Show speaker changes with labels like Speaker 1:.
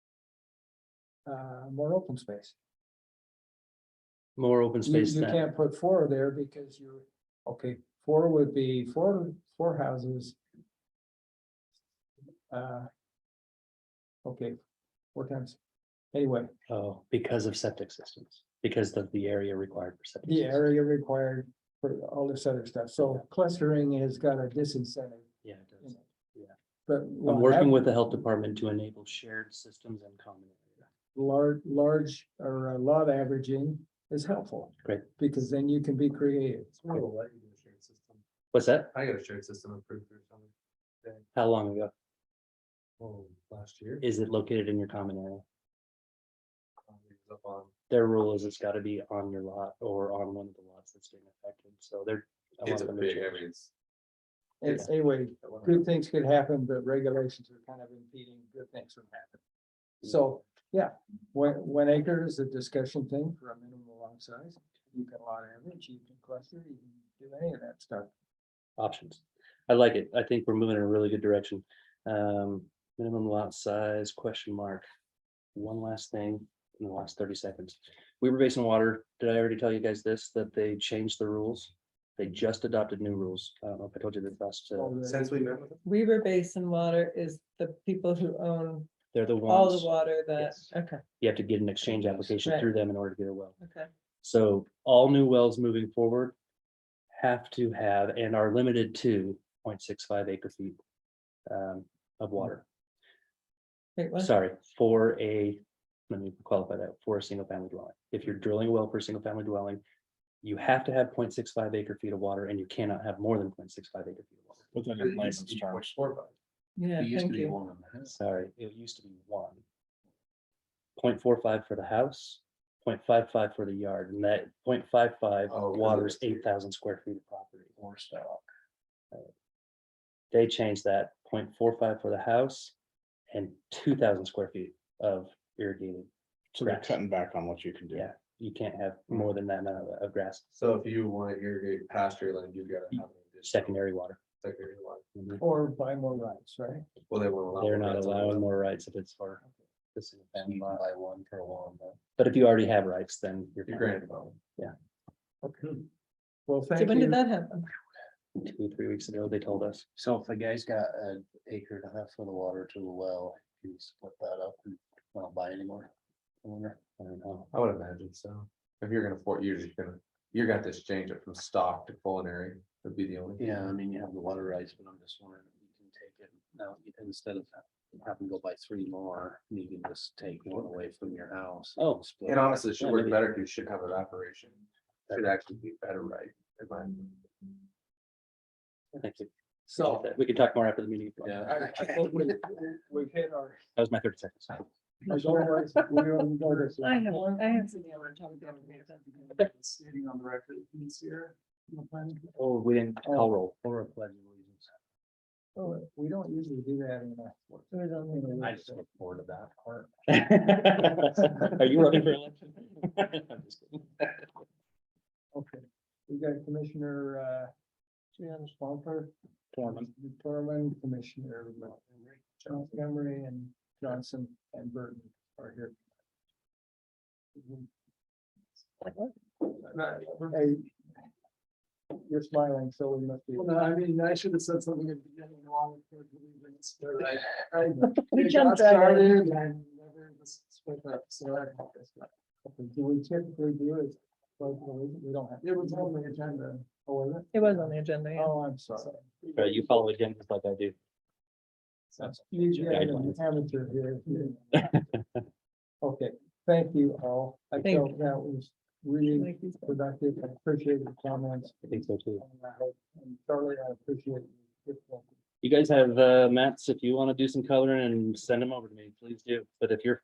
Speaker 1: uh, more open space.
Speaker 2: more open
Speaker 1: You,
Speaker 2: space
Speaker 1: you
Speaker 2: than,
Speaker 1: can't put four there because you're, okay, four would be four, four houses. Uh. Okay, four times, anyway,
Speaker 2: oh, because of septic systems, because of the area required for septic.
Speaker 1: the
Speaker 2: systems.
Speaker 1: area required for all this other stuff, so clustering has got a disincentive,
Speaker 2: Yeah. it does.
Speaker 1: but.
Speaker 2: I'm working with the health department to enable shared systems and common. area.
Speaker 1: Large, large or a lot averaging is helpful.
Speaker 2: Great.
Speaker 1: Because then you can be creative.
Speaker 2: What's that?
Speaker 3: I got a shared system approved through something.
Speaker 2: How long ago?
Speaker 3: Oh, last year.
Speaker 2: Is it located in your common area?
Speaker 3: um, it was Up on,
Speaker 2: Their rule is it's gotta be on your lot or on one of the lots that's being affected, so they're. I
Speaker 3: it's a
Speaker 2: want them to
Speaker 3: big, I
Speaker 2: change.
Speaker 3: mean, it's.
Speaker 1: And anyway, good things could happen, but regulations are kind of impeding good things from happening. So, yeah, one, one acre is a discussion thing for a minimum lot size. You can lot average, you can cluster, you can do any of that stuff.
Speaker 2: options. I like it. I think we're moving in a really good direction. Um, minimum lot size, question mark. One last thing in the last thirty seconds. Weber Basin Water, did I already tell you guys this, that they changed the rules? They just adopted new rules. I don't know if I told you this last, uh,
Speaker 1: All the-
Speaker 3: Since we met with them,
Speaker 4: Weaver Basin Water is the people who own
Speaker 2: they're the
Speaker 4: all the
Speaker 2: ones,
Speaker 4: water that,
Speaker 2: Yes.
Speaker 4: okay,
Speaker 2: you have to get an exchange application
Speaker 4: Right.
Speaker 2: through them in order to get a well.
Speaker 4: okay.
Speaker 2: So all new wells moving forward have to have and are limited to 0.65 acre feet um, of water.
Speaker 4: Wait, what?
Speaker 2: sorry, for a, let me qualify that, for a single family dwelling. If you're drilling a well for a single family dwelling, you have to have 0.65 acre feet of water and you cannot have more than 0.65 acre feet of water.
Speaker 5: Put that
Speaker 3: it
Speaker 5: in
Speaker 3: used to
Speaker 5: license
Speaker 3: be point
Speaker 5: terms.
Speaker 3: four five.
Speaker 4: Yeah,
Speaker 5: It used to
Speaker 4: thank
Speaker 5: be
Speaker 4: you.
Speaker 5: one and a half.
Speaker 2: Sorry, it used to be one. 0.45 for the house, 0.55 for the yard, and that 0.55
Speaker 3: Oh, 'cause
Speaker 2: waters
Speaker 3: it's-
Speaker 2: eight thousand square feet of property.
Speaker 5: Or stock.
Speaker 2: They changed that 0.45 for the house and two thousand square feet of irrigated.
Speaker 5: So they're
Speaker 2: Correct.
Speaker 5: cutting back on what you can do.
Speaker 2: Yeah, you can't have
Speaker 5: Hmm.
Speaker 2: more than that amount of- of grass,
Speaker 3: So if you want to irrigate pasture land, you gotta have. an additional
Speaker 2: secondary water.
Speaker 3: Secondary line.
Speaker 5: Hmm.
Speaker 1: Or buy more rights, right?
Speaker 3: Well, they won't allow.
Speaker 2: They're
Speaker 3: more
Speaker 2: not
Speaker 3: rights on
Speaker 2: allowing
Speaker 3: that.
Speaker 2: more rights if it's for. the single family.
Speaker 5: By one per one.
Speaker 2: But if you already have rights, then you're.
Speaker 3: You're
Speaker 2: fine.
Speaker 3: granted them.
Speaker 1: Okay. Well,
Speaker 4: So
Speaker 1: thank
Speaker 4: when did
Speaker 1: you.
Speaker 4: that happen?
Speaker 2: Two, three weeks ago, they told us.
Speaker 5: So if the guy's got an acre and a half for the water to the well, can you split that up and not buy anymore? I wonder.
Speaker 2: I don't know.
Speaker 3: I would imagine so. If you're gonna, for- you're just gonna, you're gonna have to change it from stock to culinary would be the only. thing.
Speaker 5: Yeah, I mean, you have the water rights, but I'm just wondering if you can take it now, you- instead of having to go buy three more, you can just take one away from your house.
Speaker 2: Oh,
Speaker 5: split
Speaker 3: And
Speaker 5: it up.
Speaker 3: honestly, it should
Speaker 2: Yeah,
Speaker 3: work
Speaker 2: maybe.
Speaker 3: better because you should have evaporation. Should actually be better, right? in my opinion.
Speaker 2: Thank you.
Speaker 1: So.
Speaker 2: We can talk more after the meeting. if you want.
Speaker 5: Yeah.
Speaker 1: I, I think we, we- we've hit our.
Speaker 2: That was my thirty seconds.
Speaker 1: As always, we don't go this.
Speaker 4: I have, I have some other topic.
Speaker 5: Stating on the record, it's here.
Speaker 2: Oh, we didn't call roll.
Speaker 5: Or a pledge of allegiance.
Speaker 1: Oh, We don't usually do that in the.
Speaker 5: I just look forward to that part.
Speaker 2: Are you running for election? I'm just kidding.
Speaker 1: Okay, we got Commissioner, uh, Jan Swampert. Torman. Torman, Commissioner Montgomery and Johnson and Burton are here. Hey, You're smiling, so we must be. Well, I mean, I should have said something at the beginning along with.
Speaker 4: We jumped right in.
Speaker 1: Do we typically do it? Well, we we don't have. It was on the agenda. Oh, was
Speaker 4: It was on the agenda, yeah.
Speaker 1: Oh, I'm sorry.
Speaker 2: All right, You follow it again, just like I do.
Speaker 1: You you have an
Speaker 2: Guidelines.
Speaker 1: amateur here. Okay, thank you all. I
Speaker 4: Thank
Speaker 1: felt that was really
Speaker 4: Like these-
Speaker 1: productive. I appreciate the comments.
Speaker 2: I think so too.
Speaker 1: And I hope- and Charlie, I appreciate. your difficulty.
Speaker 2: You guys have uh, maps, if you want to do some coloring and send them over to me, please do. But if you're